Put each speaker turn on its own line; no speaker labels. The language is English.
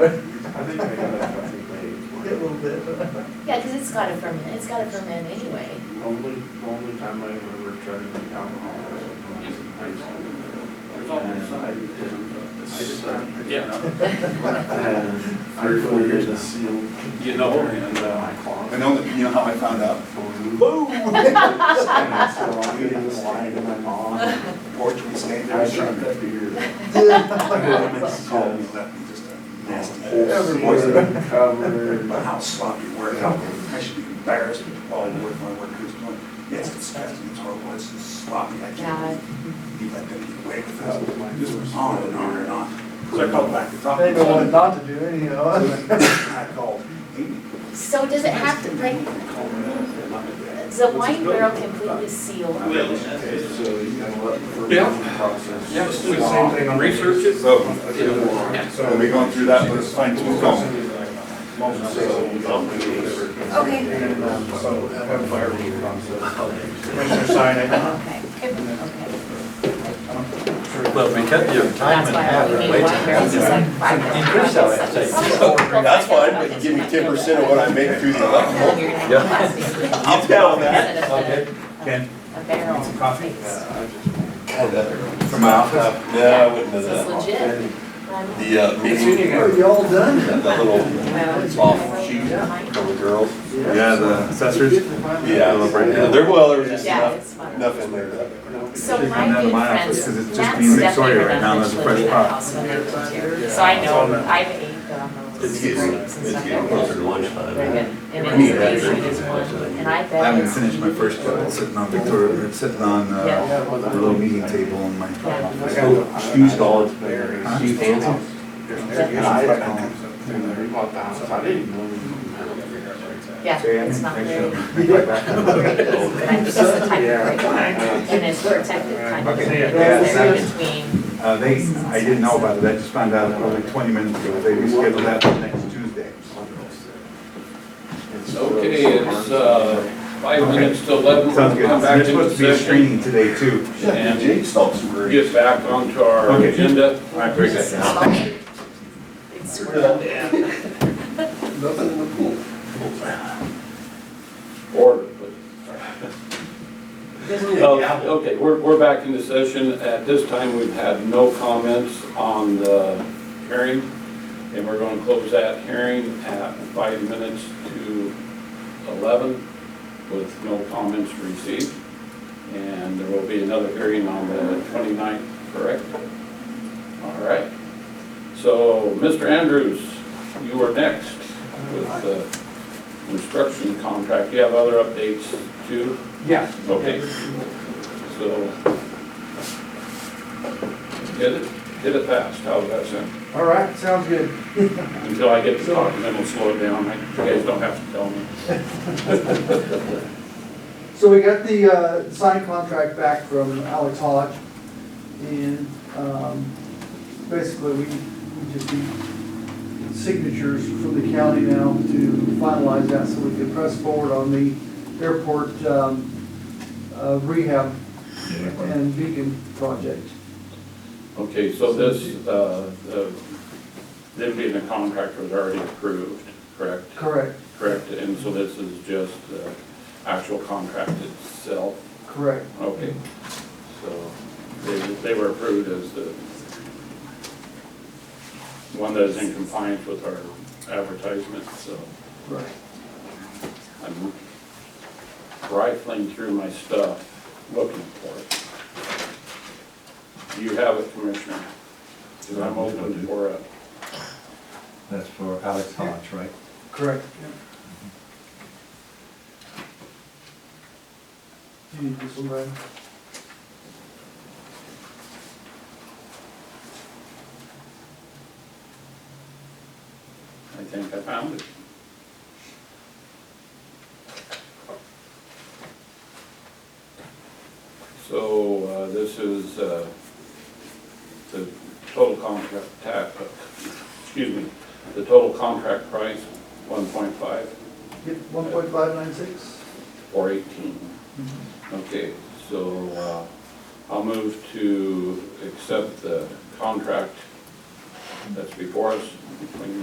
I think I got that company made.
A little bit.
Yeah, because it's got a ferment, it's got a ferment anyway.
Only, only time I remember trying to drink alcohol was when I was in high school.
always-
And I didn't- I just,
Yeah,
and I
four years
put
now.
a sealed
you know,
in
and, uh,
my closet.
I know, that- you know how I found out?
Blue.
Boom!
And so I'm eating this line to my mom. and
Porch, we stand there,
I
and shut
drank
that
that beer.
It's called me, left me just a nasty
Whole
hole.
season covered.
But how sloppy work, how, I should be embarrassed with all the work my workers doing. Yes, it's fast, it's horrible, it's just sloppy, I
Yeah.
can't believe you let them get away with this. This was on and on and on. So I called back to talk
They
to
don't want
them.
not to do anyhow.
I called Amy.
So does it have to, like, is the wine barrel completely sealed?
Well,
So you gotta let the
Yeah.
fermentation process.
yeah, let's do the same thing on research it.
So,
Yeah.
are we going through that, let's find two phones.
Okay. And, um, so have a fire meter on, so.
Commissioner Sign,
Okay, okay.
Well, we kept your time
That's
and a
why I
half.
only need wine barrels, it's like five.
In Curacao, I'd say.
That's fine, but you give me ten percent of what I make through the level. I'll tell them that.
Okay.
Ken? A barrel. Coffee?
From my office? No, I wouldn't do
This is
that.
legit.
The uh, meeting,
are you all done?
that little off sheet for the girls.
Yeah, the assessors.
Yeah, there, well, there was just
Yeah,
enough,
it's fun.
enough in there. that-
So
They
my
come down to
good
my office
friends,
'cause it's just
Matt's
me and
definitely
Victoria right now,
around
and there's a
Mitchell in
fresh
that
pot.
house when I lived here. So I know, I've ate, um, but I'm a little.
It's getting, it's getting closer to lunchtime.
Very good. And
I mean,
information
yeah.
is one, and I bet.
I haven't
it's-
finished my first one, It's sitting on Victoria, it's sitting on, uh,
Yeah.
the little meeting table in my office.
Steve's gone. Steve Hansen.
And I, I bought the house, I didn't even know.
Yeah, it's not very, very easy, but I think it's the type of
Yeah.
break.
Uh,
And it's protected kind of.
Okay,
thing.
yeah,
It's
second.
between,
Uh, they, I didn't know about it, I just found out probably twenty minutes ago, they rescheduled that for next Tuesday.
Okay, it's, uh, five minutes to eleven,
Sounds
we'll
good,
come back
there's
into
supposed to be a
session.
screening today too.
Yeah, the Jake Stokes were.
Get back onto our
Okay.
agenda.
I agree with that.
it's sort of-
Nothing in the pool.
Order, please. Uh, Okay, we're, we're back into session. At this time, we've had no comments on the hearing, and we're going to close that hearing at five minutes to eleven with no comments received. And there will be another hearing on the 29th, correct? All right. So, Mr. Andrews, you are next with the construction contract, you have other updates too?
Yeah.
Okay. So. Get it, get it passed, how's that sound?
All right, sounds good.
Until I get the document, we'll slow it down, I- you guys don't have to tell me.
So we got the uh, signed contract back from Alex Hodge, and um, basically, we we just need signatures from the county now to finalize that, so we can press forward on the airport um, uh, rehab and beacon project.
Okay, so this, uh, the, them being a contractor was already approved, correct?
Correct,
Correct, and so this is just the actual contract itself?
correct.
Okay, so they, they were approved as the one that is in compliance with our advertisement, so
Right.
I'm rifling through my stuff, looking for it. Do you have it, Commissioner? 'Cause I'm open for it.
That's for Alex Hodge, right?
Correct. Do you need this one, Brad?
I think I found it. So uh, this is uh, the total contract, ta- excuse me, the total contract price, 1.5
Yep, one point five nine six.
or 18. Okay, so uh, I'll move to accept the contract that's before us between